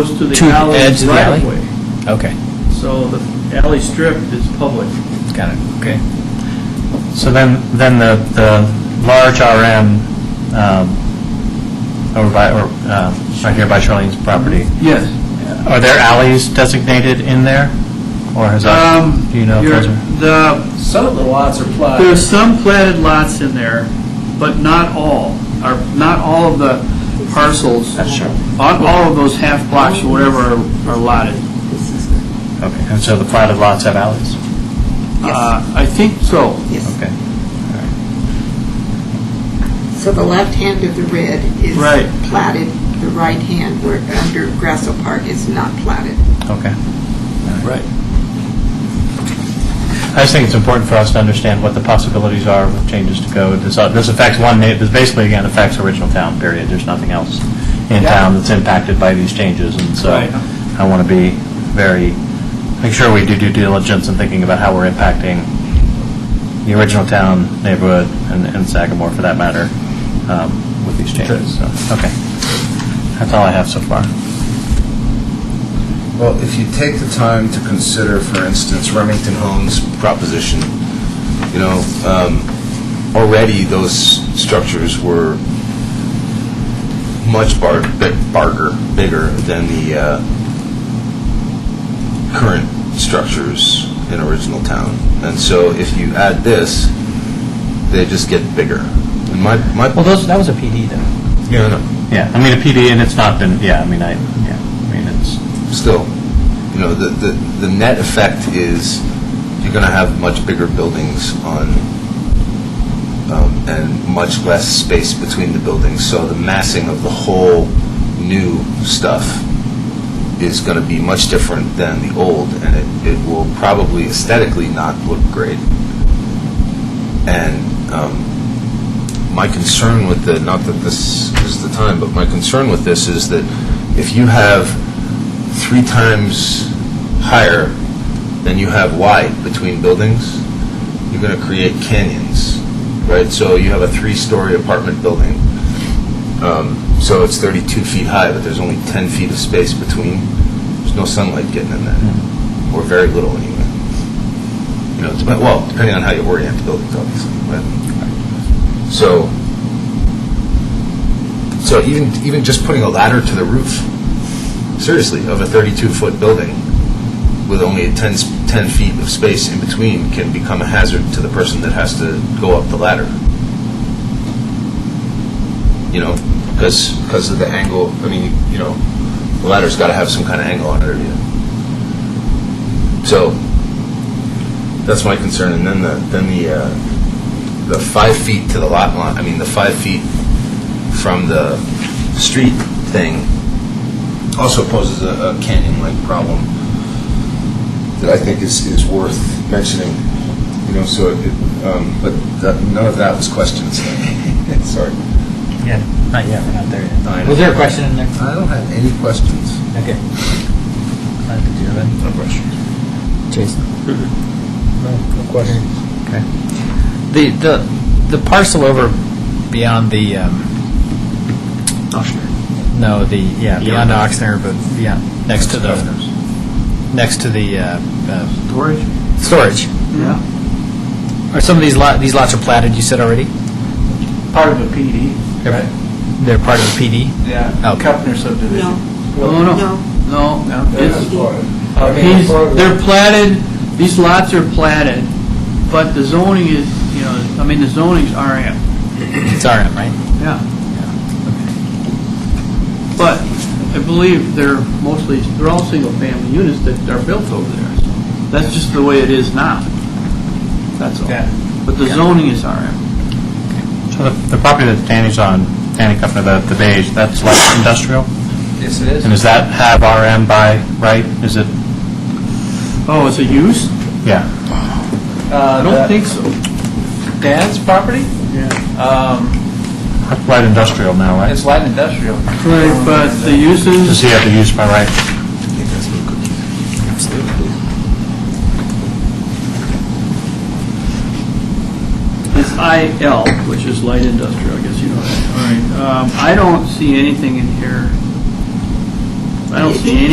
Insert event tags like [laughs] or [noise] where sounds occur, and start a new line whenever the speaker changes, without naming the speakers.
goes to
To
the
the
alley
edge of the
right
alley?
of way.
Okay,
So the alley strip is public.
got it, okay.
So then, then the, the large RM um, over by, or um, right here by Charlene's property,
Yes.
are there alleys designated in there? Or has
Um,
that, do you know if those are?
The,
Some of the lots are platted.
there's some planted lots in there, but not all, or not all of the parcels. All all of those half blocks or whatever are- are lotted.
Okay, and so the platted lots have alleys?
Uh, I think so.
Yes.
Okay.
So the left hand of the red is
Right.
platted, the right hand where under Grasso Park is not platted.
Okay. Right. I just think it's important for us to understand what the possibilities are with changes to code. This this affects one, na- this basically, again, affects original town, period. There's nothing else in town that's impacted by these changes, and so
Right.
I want to be very, make sure we do due diligence in thinking about how we're impacting the original town, neighborhood, and and Sagamore, for that matter, um, with these changes. So, Okay. That's all I have so far.
Well, if you take the time to consider, for instance, Remington Homes proposition, you know, um, already those structures were much bar- bi- barger, bigger than the uh, current structures in original town. And so if you add this, they just get bigger. And my, my,
Well, those, that was a PD though.
yeah, no,
Yeah, I mean, a PD, and it's not been, yeah, I mean, I, yeah, I mean, it's,
still, you know, the, the, the net effect is you're going to have much bigger buildings on, um, and much less space between the buildings. So the massing of the whole new stuff is going to be much different than the old, and it, it will probably aesthetically not look great. And um, my concern with the, not that this is the time, but my concern with this is that if you have three times higher than you have wide between buildings, you're going to create canyons, right? So you have a three-story apartment building. Um, So it's 32 feet high, but there's only 10 feet of space between. There's no sunlight getting in that, or very little anyway. You know, it's about- well, depending on how you orient the buildings, obviously, but, so, so even, even just putting a ladder to the roof seriously, of a 32-foot building with only 10, s- 10 feet of space in between can become a hazard to the person that has to go up the ladder. You know, because, because of the angle, I mean, you know, the ladder's got to have some kind of angle on it, or you... So, that's my concern, and then the, then the, uh, the five feet to the lot line, I mean, the five feet from the street thing also poses a, a canyon-like problem that I think is, is worth mentioning, you know, so, it, um, but that, none of that was questioned, so, [laughs] sorry.
Yeah, not yet, we're not there
No, I
yet.
know.
Was there a question in there?
I don't have any questions.
Okay. Uh, Did you have any?
No questions.
Jason?
No question.
Okay. The, the, the parcel over beyond the, um. No, the, yeah, beyond Oxner, but beyond, next to the, next to the, uh, uh,
Storage?
storage.
Yeah.
Are some of these lot, these lots are platted, you said already?
Part of a PD.
They're- They're part of the PD?
Yeah.
Okay.
Kepner subdivision. No, no.
No.
No, it's-
I mean,
These,
part of
they're platted, these lots are platted, but the zoning is, you know, I mean, the zoning's RM.
It's RM, right?
Yeah. But I believe they're mostly, they're all single-family units that are built over there. so That's just the way it is now. That's all.
Yeah.
But the zoning is RM.
So the, the property that Danny's on, Danny Kupner, the, the beige, that's light industrial?
Yes, it is.
And does that have RM by right? Is it,
Oh, it's a use?
yeah,
I
Uh,
don't think so.
Dan's property,
Yeah.
um,
that's light industrial now, right?
it's light industrial.
Right, but the
Does
uses,
he have the use by right?
it's IL, which is light industrial, I guess you know that. All right. Um, I don't see anything in here I don't see any